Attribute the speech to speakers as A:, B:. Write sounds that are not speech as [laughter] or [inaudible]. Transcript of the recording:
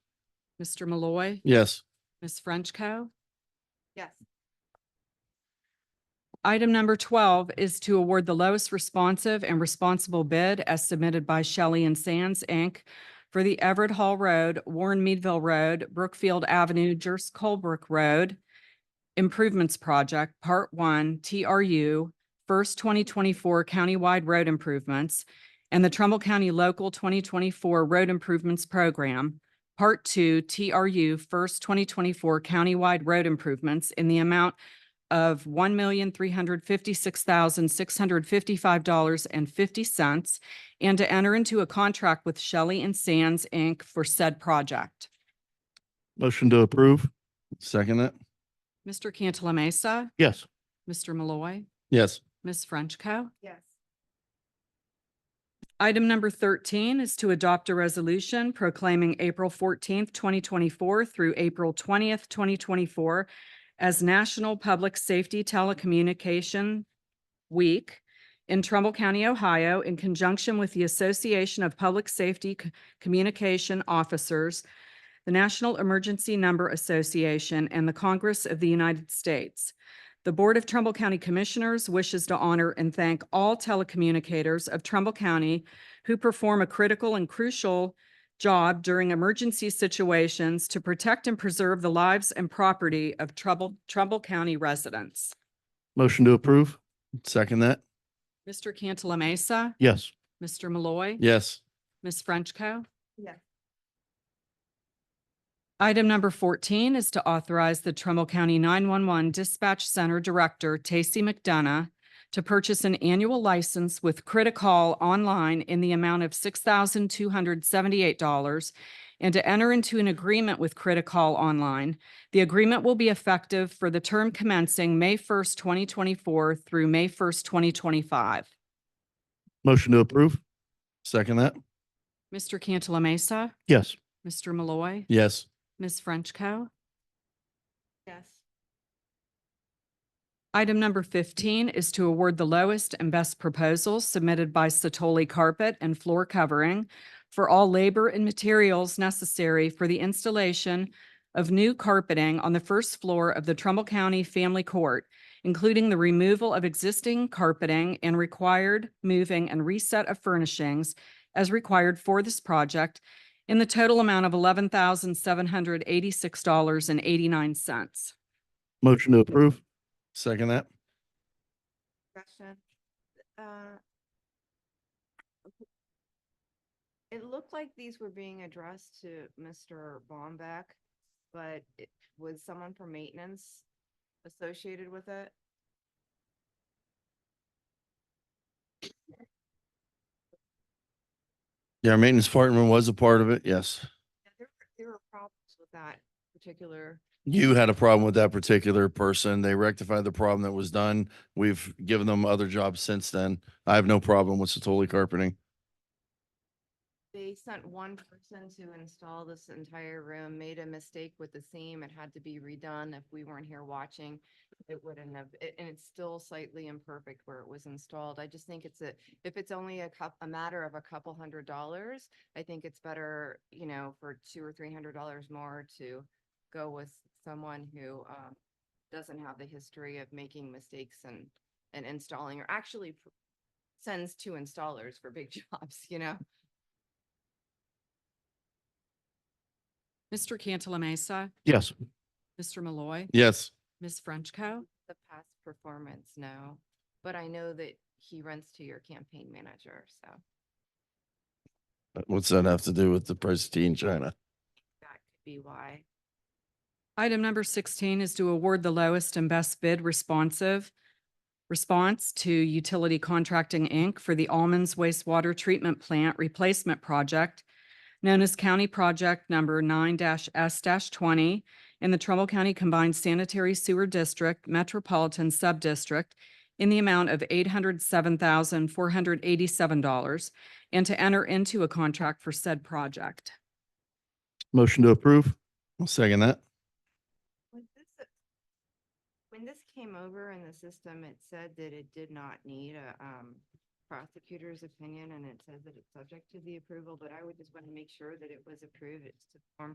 A: Mr. Malloy,
B: Yes.
A: Ms. Frenchco.
C: Yes.
A: Item number twelve is to award the lowest responsive and responsible bid as submitted by Shelley and Sands, Inc. for the Everett Hall Road, Warren Meadville Road, Brookfield Avenue, Jers Colebrook Road Improvements Project, Part One, TRU, First Twenty Twenty-four Countywide Road Improvements and the Trumbull County Local Twenty Twenty-four Road Improvements Program, Part Two, TRU, First Twenty Twenty-four Countywide Road Improvements in the amount of one million, three hundred fifty-six thousand, six hundred fifty-five dollars and fifty cents, and to enter into a contract with Shelley and Sands, Inc. for said project.
B: Motion to approve. Second it.
A: Mr. Cantala Mesa,
B: Yes.
A: Mr. Malloy,
B: Yes.
A: Ms. Frenchco.
C: Yes.
A: Item number thirteen is to adopt a resolution proclaiming April fourteenth, twenty twenty-four through April twentieth, twenty twenty-four as National Public Safety Telecommunication Week in Trumbull County, Ohio, in conjunction with the Association of Public Safety C- Communication Officers, the National Emergency Number Association, and the Congress of the United States. The Board of Trumbull County Commissioners wishes to honor and thank all telecommunicators of Trumbull County who perform a critical and crucial job during emergency situations to protect and preserve the lives and property of Trumbull, Trumbull County residents.
B: Motion to approve. Second that.
A: Mr. Cantala Mesa,
B: Yes.
A: Mr. Malloy.
B: Yes.
A: Ms. Frenchco.
C: Yes.
A: Item number fourteen is to authorize the Trumbull County nine-one-one Dispatch Center Director, Tacey McDonough, to purchase an annual license with Criticall Online in the amount of six thousand two hundred seventy-eight dollars and to enter into an agreement with Criticall Online. The agreement will be effective for the term commencing May first, twenty twenty-four through May first, twenty twenty-five.
B: Motion to approve. Second that.
A: Mr. Cantala Mesa,
B: Yes.
A: Mr. Malloy.
B: Yes.
A: Ms. Frenchco.
C: Yes.
A: Item number fifteen is to award the lowest and best proposals submitted by Satoli Carpet and Floor Covering for all labor and materials necessary for the installation of new carpeting on the first floor of the Trumbull County Family Court, including the removal of existing carpeting and required moving and reset of furnishings as required for this project in the total amount of eleven thousand seven hundred eighty-six dollars and eighty-nine cents.
B: Motion to approve. Second that.
C: Question. Uh, It looked like these were being addressed to Mr. Bombeck, but it- was someone from maintenance associated with it?
B: Yeah, our maintenance department was a part of it. Yes.
C: Yeah, There were- there were problems with that particular,
B: You had a problem with that particular person. They rectified the problem that was done. We've given them other jobs since then. I have no problem with Satoli carpeting.
C: they sent one person to install this entire room, made a mistake with the seam, it had to be redone. If we weren't here watching, it wouldn't have, a- and it's still slightly imperfect where it was installed. I just think it's a, if it's only a cup, a matter of a couple hundred dollars, I think it's better, you know, for two or three hundred dollars more to go with someone who um doesn't have the history of making mistakes and and installing or actually pr- sends two installers for big [laughs] jobs, you know?
A: Mr. Cantala Mesa,
B: Yes.
A: Mr. Malloy,
B: Yes.
A: Ms. Frenchco.
C: the past performance, no, but I know that he runs to your campaign manager, so
B: What's that have to do with the price of tea in China?
C: that could be why.
A: Item number sixteen is to award the lowest and best bid responsive response to Utility Contracting, Inc. for the Almonds Wastewater Treatment Plant Replacement Project, known as County Project Number nine S twenty in the Trumbull County Combined Sanitary Sewer District Metropolitan Subdistrict in the amount of eight hundred seven thousand, four hundred eighty-seven dollars and to enter into a contract for said project.
B: Motion to approve. I'll second that.
C: Was this a- When this came over in the system, it said that it did not need a um prosecutor's opinion and it says that it's subject to the approval, but I would just want to make sure that it was approved. It's to form